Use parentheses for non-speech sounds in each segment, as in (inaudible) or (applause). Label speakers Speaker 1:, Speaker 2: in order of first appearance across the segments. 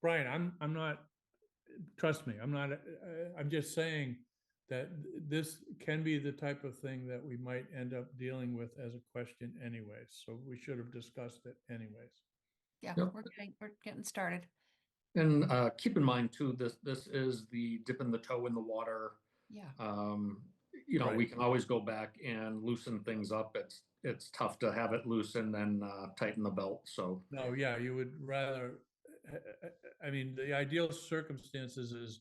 Speaker 1: Brian, I'm, I'm not, trust me, I'm not, uh, I'm just saying that this can be the type of thing that we might end up dealing with as a question anyways, so we should have discussed it anyways.
Speaker 2: Yeah,
Speaker 3: Yep.
Speaker 2: we're getting, we're getting started.
Speaker 3: And uh, keep in mind too, this, this is the dipping the toe in the water.
Speaker 2: Yeah,
Speaker 3: Um, You know, we
Speaker 1: Right.
Speaker 3: can always go back and loosen things up. It's, it's tough to have it loose and then uh, tighten the belt, so.
Speaker 1: No, yeah, you would rather, I- I- I mean, the ideal circumstances is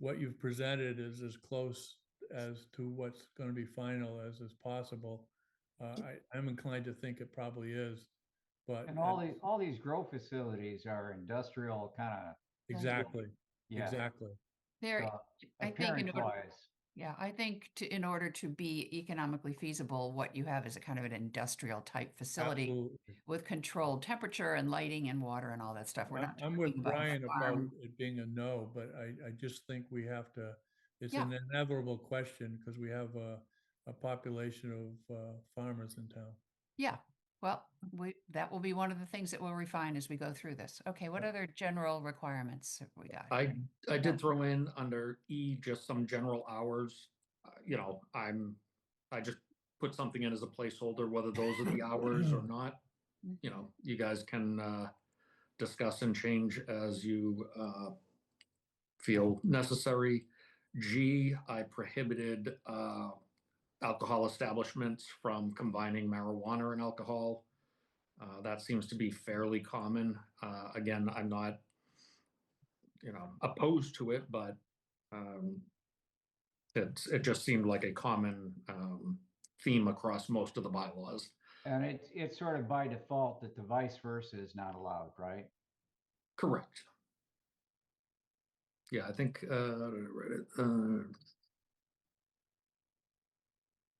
Speaker 1: what you've presented is as close as to what's going to be final as is possible. Uh, I, I'm inclined to think it probably is, but.
Speaker 4: And all
Speaker 1: that's-
Speaker 4: these, all these grow facilities are industrial kind of,
Speaker 1: Exactly,
Speaker 4: yeah.
Speaker 1: exactly.
Speaker 2: there,
Speaker 4: uh,
Speaker 2: I think in order,
Speaker 4: appearance-wise,
Speaker 2: yeah, I think to, in order to be economically feasible, what you have is a kind of an industrial type facility
Speaker 1: absolutely.
Speaker 2: with controlled temperature and lighting and water and all that stuff. We're
Speaker 1: I'm-
Speaker 2: not.
Speaker 1: I'm with
Speaker 2: talking about a
Speaker 1: Brian about
Speaker 2: farm.
Speaker 1: it being a no, but I, I just think we have to, it's
Speaker 2: Yeah.
Speaker 1: an inevitable question because we have a, a population of uh, farmers in town.
Speaker 2: Yeah, well, we, that will be one of the things that we'll refine as we go through this. Okay, what other general requirements have we got?
Speaker 3: I, I
Speaker 2: Yeah.
Speaker 3: did throw in under E, just some general hours. Uh, You know, I'm, I just put something in as a placeholder, whether those are the hours or not. You know, you guys can uh, discuss and change as you uh, feel necessary. G, I prohibited uh, alcohol establishments from combining marijuana and alcohol. Uh, That seems to be fairly common. Uh, Again, I'm not you know, opposed to it, but um, it's, it just seemed like a common um, theme across most of the bylaws.
Speaker 4: And it's, it's sort of by default that the vice versa is not allowed, right?
Speaker 3: Correct. Yeah, I think, uh, uh,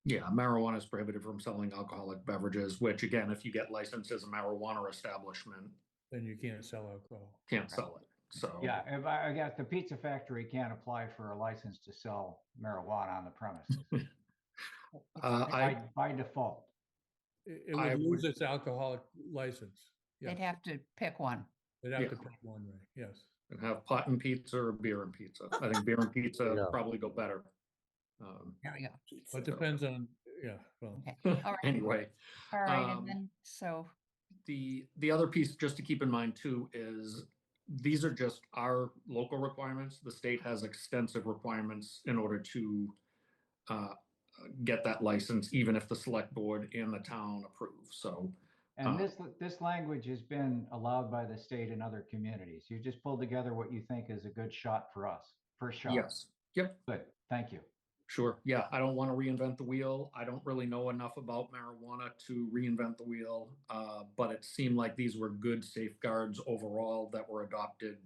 Speaker 3: yeah, marijuana is prohibited from selling alcoholic beverages, which again, if you get licensed as a marijuana establishment,
Speaker 1: Then you can't sell alcohol.
Speaker 3: can't sell it. So.
Speaker 4: Yeah, if I, I guess the pizza factory can't apply for a license to sell marijuana on the premises.
Speaker 3: uh, I,
Speaker 4: By, by default,
Speaker 1: It it
Speaker 3: I
Speaker 1: would lose
Speaker 3: would-
Speaker 1: its alcoholic license. yeah.
Speaker 2: They'd have to pick one.
Speaker 1: They'd have
Speaker 3: Yeah.
Speaker 1: to pick one, right? Yes.
Speaker 3: and have pot and pizza or beer and pizza. I think beer and pizza probably go better. Um,
Speaker 2: There we go.
Speaker 1: Well, It depends on, yeah, well,
Speaker 2: Okay, all right.
Speaker 3: Anyway,
Speaker 2: All right,
Speaker 3: um,
Speaker 2: and then, so,
Speaker 3: the, the other piece just to keep in mind too is these are just our local requirements. The state has extensive requirements in order to uh, get that license, even if the select board and the town approve. So Uh,
Speaker 4: and this, this language has been allowed by the state and other communities. You just pulled together what you think is a good shot for us, first shot.
Speaker 3: yes,
Speaker 4: Good, thank you.
Speaker 3: sure. Yeah, I don't want to reinvent the wheel. I don't really know enough about marijuana to reinvent the wheel. uh, But it seemed like these were good safeguards overall that were adopted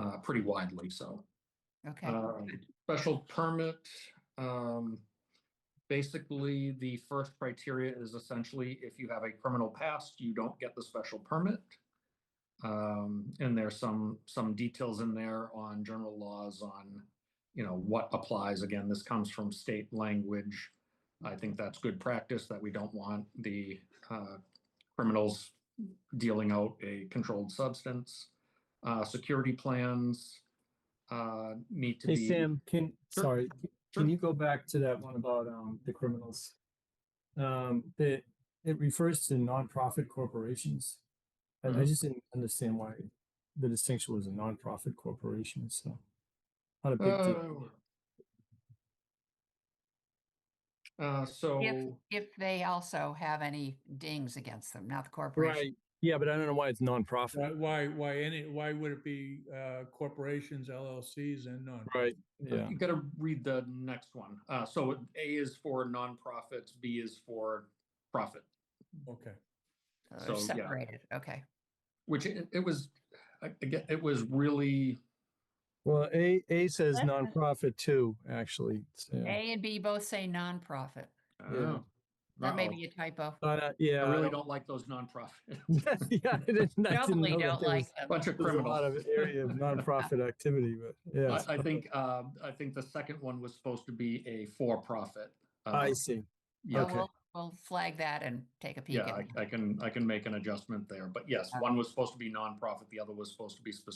Speaker 3: uh, pretty widely, so.
Speaker 2: okay.
Speaker 3: Um, Special permit, um, basically, the first criteria is essentially if you have a criminal past, you don't get the special permit. Um, and there's some, some details in there on general laws on, you know, what applies. Again, this comes from state language. I think that's good practice that we don't want the, uh, criminals dealing out a controlled substance. Uh, security plans, uh, need to
Speaker 5: Hey,
Speaker 3: be.
Speaker 5: Sam, can,
Speaker 3: Sure,
Speaker 5: sorry, c-
Speaker 3: sure.
Speaker 5: can you go back to that one about, um, the criminals? Um, that, it refers to nonprofit corporations. And I
Speaker 3: Mhm.
Speaker 5: just didn't understand why the distinction was a nonprofit corporation, so. Not a big deal.
Speaker 3: Oh. Uh, so,
Speaker 2: If they also have any dings against them, not the corporation.
Speaker 5: Right, yeah, but I don't know why it's
Speaker 1: why-
Speaker 5: nonprofit.
Speaker 1: why, why any, why would it be uh, corporations, LLCs and none?
Speaker 5: Right,
Speaker 3: uh,
Speaker 5: yeah,
Speaker 3: you gotta read the next one. Uh, so A is for nonprofits, B is for profit,
Speaker 1: Okay.
Speaker 2: Uh, they're
Speaker 3: so, yeah.
Speaker 2: Separated, okay.
Speaker 3: which it, it was, a- again, it was really,
Speaker 5: well, A, A says
Speaker 2: That's-
Speaker 5: nonprofit too, actually, so,
Speaker 2: A and B both say nonprofit.
Speaker 3: uh,
Speaker 2: That may
Speaker 3: uh-oh.
Speaker 2: be a typo.
Speaker 5: but, uh,
Speaker 3: I
Speaker 5: yeah. I
Speaker 3: really
Speaker 5: don't-
Speaker 3: don't like those nonprofit,
Speaker 5: (laughs)
Speaker 3: (laughs)
Speaker 5: Yeah, I didn't, (laughs) I didn't
Speaker 2: Probably
Speaker 5: know that
Speaker 2: don't
Speaker 5: there
Speaker 2: like
Speaker 5: was,
Speaker 2: them.
Speaker 3: bunch of
Speaker 5: there's a lot
Speaker 3: criminals.
Speaker 5: of area
Speaker 3: (laughs)
Speaker 5: of nonprofit activity, (laughs) but, yeah.
Speaker 3: I, I think, uh, I think the second one was supposed to be a for-profit.
Speaker 5: I
Speaker 3: uh,
Speaker 5: see.
Speaker 3: yeah.
Speaker 2: Well,
Speaker 5: okay.
Speaker 2: We'll we'll flag that and take a peek
Speaker 3: Yeah,
Speaker 2: at it.
Speaker 3: I, I can, I can make an adjustment there, but yes,
Speaker 2: Okay.
Speaker 3: one was supposed to be nonprofit, the other was supposed to be specific